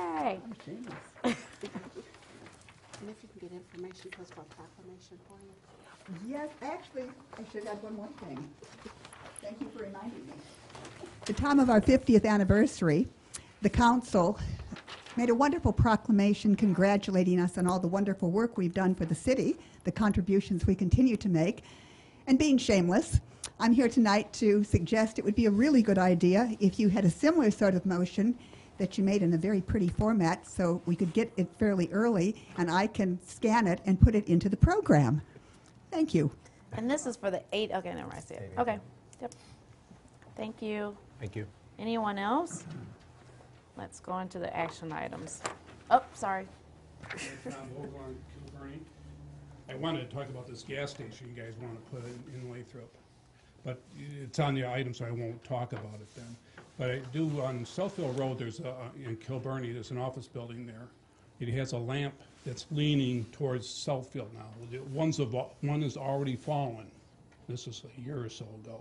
Okay. And if you can get information to us for a proclamation for you. Yes, actually, I should add one more thing. Thank you for reminding me. The time of our 50th anniversary, the council made a wonderful proclamation congratulating us on all the wonderful work we've done for the city, the contributions we continue to make, and being shameless. I'm here tonight to suggest it would be a really good idea if you had a similar sort of motion that you made in a very pretty format so we could get it fairly early and I can scan it and put it into the program. Thank you. And this is for the eight, okay, never mind, I see it. Okay, yep. Thank you. Thank you. Anyone else? Let's go into the action items. Oh, sorry. Tom Vogel on Kilburn. I wanted to talk about this gas station you guys want to put in in Lathrop, but it's on the item, so I won't talk about it then. But I do, on Southfield Road, there's, a- in Kilburn, there's an office building there. It has a lamp that's leaning towards Southfield now. The One's, of one is already fallen. This is a year or so ago.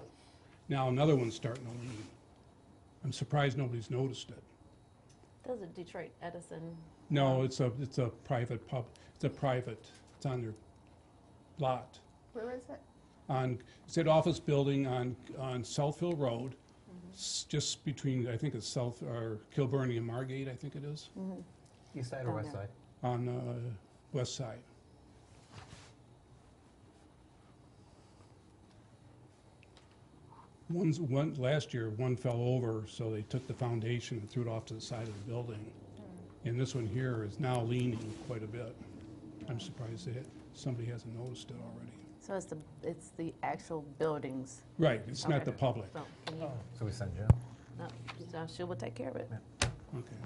Now another one's starting to lean. I'm surprised nobody's noticed it. Those are Detroit Edison. No, it's a, it's a private pub, it's a private, it's on their lot. Where is it? On, it's an office building on, on Southfield Road, Mm-hmm. s- just between, I think it's South, or Kilburn and Margate, I think it is, East side Oh, or west no. side? on the west side. One's, one, last year, one fell over, so they took the foundation and threw it off to the side of the building. And this one here is now leaning quite a bit. I'm surprised that somebody hasn't noticed it already. So it's the, it's the actual buildings. Right, it's not Okay. the public. So can you, So we send Joe. no, so she will take care of it. Okay.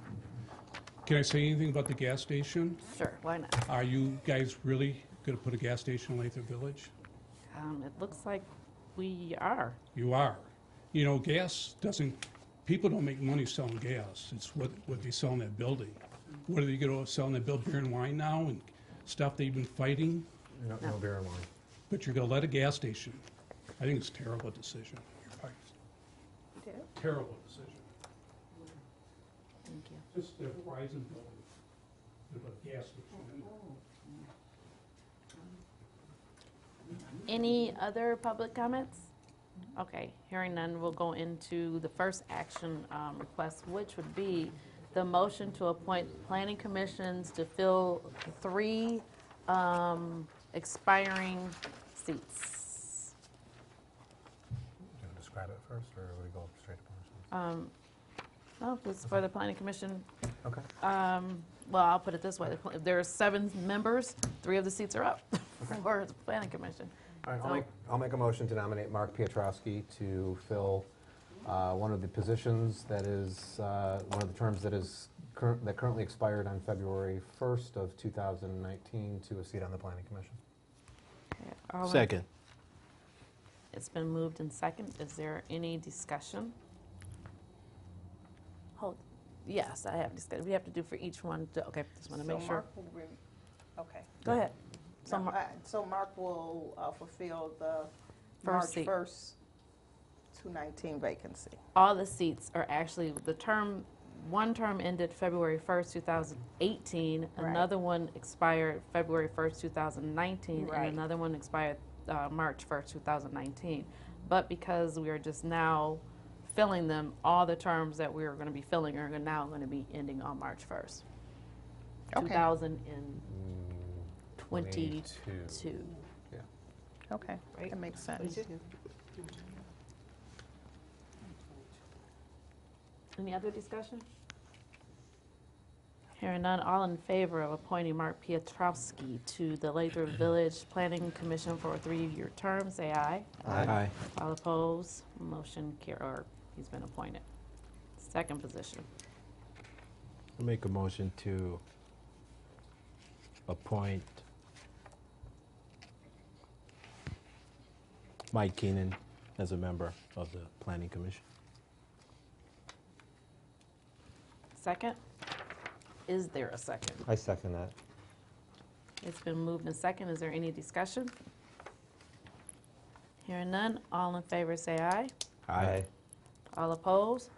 Can I say anything about the gas station? Sure, why not? Are you guys really going to put a gas station in Lathrop Village? Um, it looks like we are. You are. You know, gas doesn't, people don't make money selling gas. It's what, what they sell in that building. What are they going to sell in that build beer and wine now and stuff they've been fighting? No, no beer and wine. But you're going to let a gas station. I think it's a terrible decision. Terrible decision. Thank you. Just the Verizon building, they put a gas station in. Any other public comments? Okay, hearing none, we'll go into the first action um, request, which would be the motion to appoint planning commissions to fill three um, expiring seats. Do you want to describe it first, or would we go straight to Um, No, this is for the planning commission. Parsons? Okay. um, Well, I'll put it this way, if there are seven members, three of the seats are up for the planning commission. All right, I'll So- make, I'll make a motion to nominate Mark Pietrowski to fill uh, one of the positions that is, uh, one of the terms that is, cur- that currently expired on February 1st of 2019 to a seat on the Planning Commission. All in- Second. It's been moved and second. Is there any discussion? Hold, yes, I have discussed. We have to do for each one, to- okay, just want to make So sure. Mark will re- Okay. Go ahead. So No, Mar- I- So Mark will uh, fulfill the First March seat. 1st, 219 vacancy. all the seats are actually, the term, one term ended February 1st, 2018. Right. Another one expired February 1st, 2019. And Right. another one expired uh, March 1st, 2019. But because we are just now filling them, all the terms that we are going to be filling are gonna- now going to be ending on March 1st. Okay. 2022, 22. Okay, Right. that makes sense. Any other discussion? Hearing none, all in favor of appointing Mark Pietrowski to the Lathrop Village Planning Commission for a three-year term, say aye. Aye. All opposed, motion carried, or he's been appointed. Second position. I'll make a motion to appoint Mike Keenan as a member of the Planning Commission. Second? Is there a second? I second that. It's been moved and second. Is there any discussion? Hearing none, all in favor, say aye. All opposed?